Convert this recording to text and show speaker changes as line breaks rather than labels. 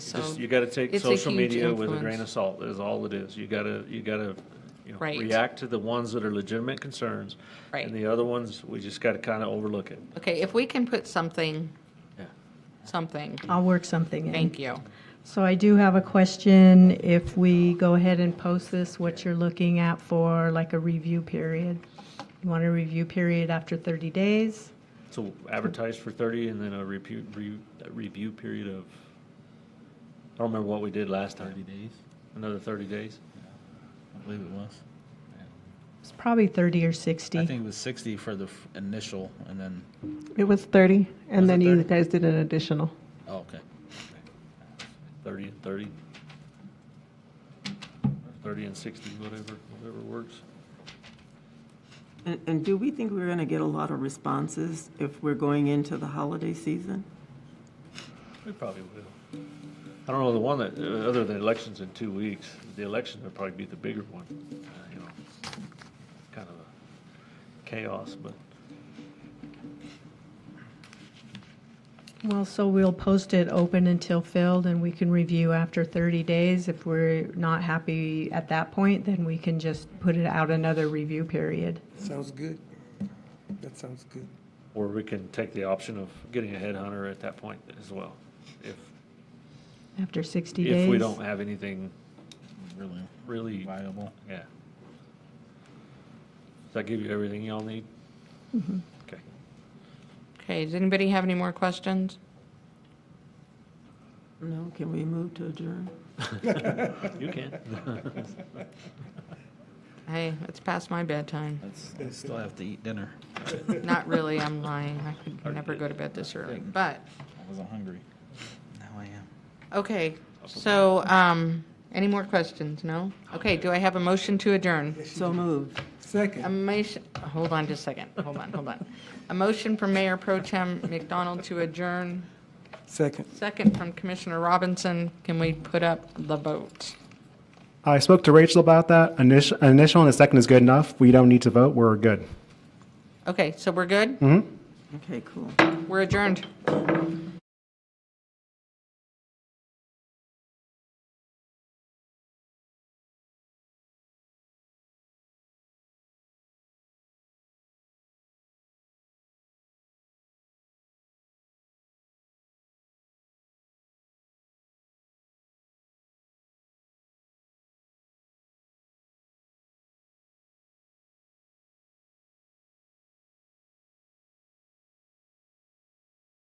so.
Just, you gotta take
it's a
social
huge
media with a grain of
influence.
salt, is all it is. You gotta, you gotta, you know,
Right.
react to the ones that are legitimate concerns.
Right.
And the other ones, we just gotta kinda overlook it.
Okay, if we can put something,
Yeah.
something,
I'll work something in.
thank you.
So I do have a question. If we go ahead and post this, what you're looking at for like a review period? You want a review period after 30 days?
So advertise for thirty and then a repu, re, a review period of, I don't remember what we did last
Thirty
time,
days,
another thirty days?
I believe it was.
It's probably 30 or
I
60.
think it was sixty for the f- initial, and then,
It was 30,
Was it
and then you
30?
guys did an additional.
oh, okay.
Thirty and thirty? Thirty and sixty, whatever, whatever works.
And, and do we think we're going to get a lot of responses if we're going into the holiday season?
We probably will. I don't know, the one that, uh, other than elections in two weeks, the election would probably be the bigger one, uh, you know, kind of a chaos, but
Well, so we'll post it open until filled and we can review after 30 days. If we're not happy at that point, then we can just put it out another review period.
Sounds good. That sounds good.
or we can take the option of getting a headhunter at that point as well, if,
After 60 days?
if we don't have anything
Really
really,
viable.
yeah. Does that give you everything y'all need? Okay.
Okay, does anybody have any more questions?
No, can we move to adjourn?
You can.
Hey, it's past my bedtime.
Let's, let's still have to eat dinner.
Not really, I'm lying. I could never go to bed this early, but,
I wasn't hungry. Now I am.
okay. So, um, any more questions? No? Okay, do I have a motion to adjourn?
So moved.
Second.
A motion, hold on just a second, hold on, hold on. A motion from Mayor Pro Tem McDonald to adjourn,
Second.
second from Commissioner Robinson. Can we put up the vote?
I spoke to Rachel about that. Initial, initial and a second is good enough. We don't need to vote. We're good.
Okay, so we're good?
Okay, cool.
We're adjourned.